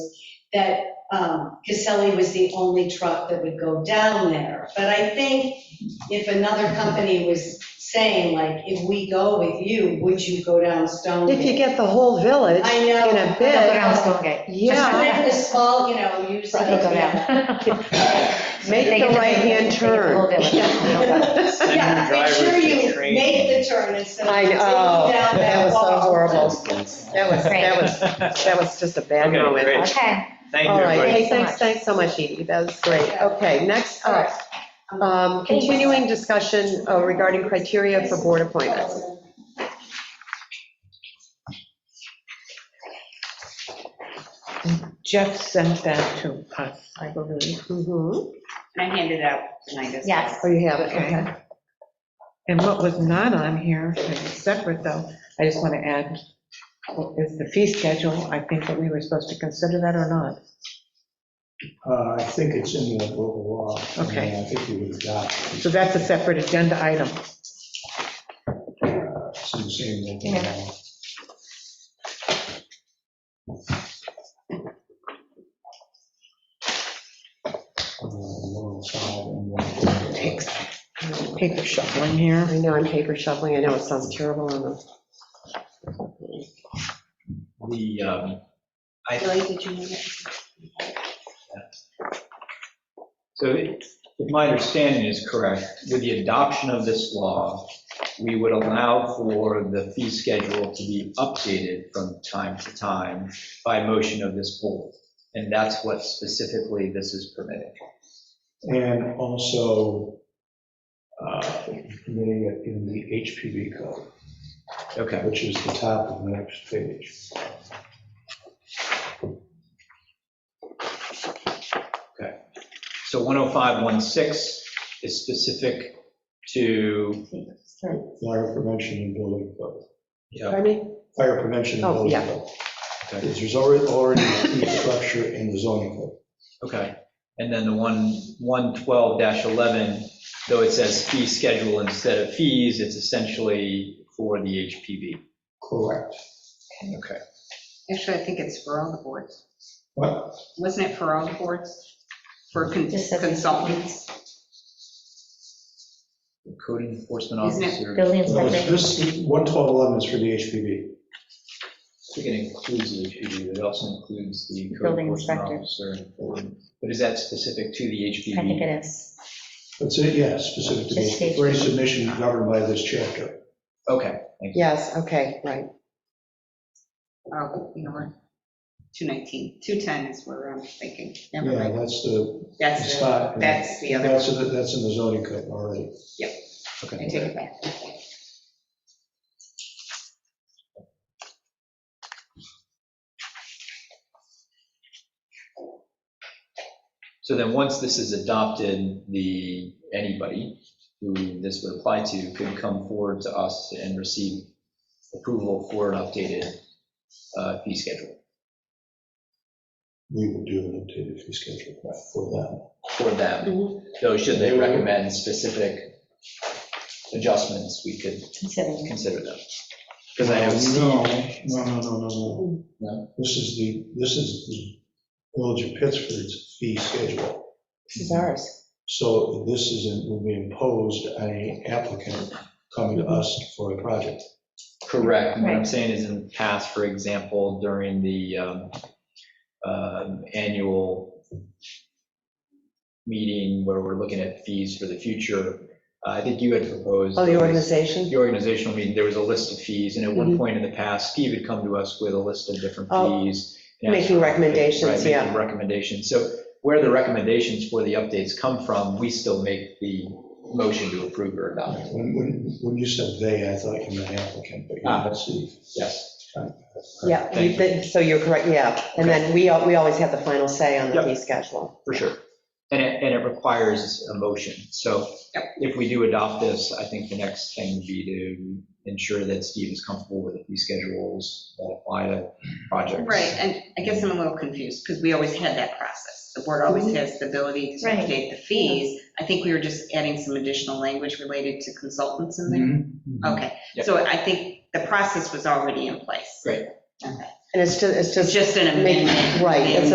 that um, Caselli was the only truck that would go down there. But I think if another company was saying, like, if we go with you, would you go down Stone? If you get the whole village I know. in a But bid, around Stonegate. And yeah, then the small, you know, use. Right, go Yeah, down. make They get the the- right-hand they get the whole turn. village. Yeah, make sure you Drivers, make the turn instead of I taking know, down that was so wall. horrible. That was, that was, That that was just a bad Okay, moment. great. Okay, Thank you, All right, everybody. hey, thanks, thanks so much, Edie, that was great. Okay, next up, um, continuing discussion uh, regarding criteria for board appointments. Jeff sent that to us, I believe. Mhm. I handed it out tonight. as well. yes. Oh, you have it, okay. And what was not on here, which is separate though, I just want to add, is the fee schedule, I think that we were supposed to consider that or not. Uh, I think it's in the local law. I mean, Okay. I think we would adopt it So that's a separate agenda item. uh, it's in the same local law. Uh, 105 and 104. Takes paper shuffling here. I know, I'm paper shoveling, I know it sounds terrible on the, The, um, I, Billy, did you need it? so if my understanding is correct, with the adoption of this law, we would allow for the fee schedule to be updated from time to time by motion of this board. And that's what specifically this is permitting. And also, uh, permitting it in the HPV code, Okay, which is the top of the next page. so 10516 is specific to, Fire prevention and building code. you know, pardon me? Fire prevention and Oh, building yeah. code. Because there's already, already a fee structure in the zoning code. Okay, and then the one, 112-11, though it says fee schedule instead of fees, it's essentially for the HPV. Correct. Okay. Actually, I think it's for all the boards. What? Wasn't it for all the boards? For con- Just said- consultants? Code enforcement Isn't it officer, Building Well, inspector. This, 11211 is for the HPV. I think it includes the HPV, but it also includes the code Building enforcement officer. inspector. But is that specific to the HPV? I think it is. That's it, yeah, specific to the Just HPV. For any submission governed by this chapter. Okay, Yes, okay, right. Oh, you know what? 219, 210 is where I'm thinking. Never Yeah, mind. that's the, That's, the- Spot. that's the other that's, one. in the- that's in the zoning code already. I okay. take it back. So then, once this is adopted, the, anybody who this would apply to could come forward to us and receive approval for an updated uh, fee schedule We will do an updated fee schedule for for Mm-hmm. them. Though should they recommend specific adjustments, we could Considering. consider them. them. Because I know No, Steve, no, no, no, no, no. No? This is the, this is the Village of Pittsford's fee schedule. This is ours. So this is, will be imposed on an applicant coming to us for a project. correct, what I'm Right. saying is in the past, for example, during the um, um, annual meeting where we're looking at fees for the future, uh, I think you had proposed. Oh, the those- organization? the organizational meeting, there was a list of fees, and at one Mhm. point in the past, Steve had come to us with a list of different Oh, fees. and asked making for- recommendations, right, making yeah. Recommendations, so where the recommendations for the updates come from, we still make the motion to approve or adopt, When, when, when you said they, I thought you meant applicant, but you're not Steve. yes. Yeah, Thank you you. did- so you're correct, yeah. And then we, al- we always have the final say on the Yep. fee schedule. For sure, and it, and it requires a motion, so if we do adopt this, I think the next thing would be to ensure that Steve is comfortable with the fee schedules that apply to projects. Right, and I guess I'm a little confused, because we always had that process. The board always has the ability to Right. update the fees. I think we were just adding some additional language related to consultants in there. Mm-hmm. Okay, Mm-hmm. Yep. so I think the process was already in place. Great. Okay. And it's just, it's It's just just an make- amendment. right, it's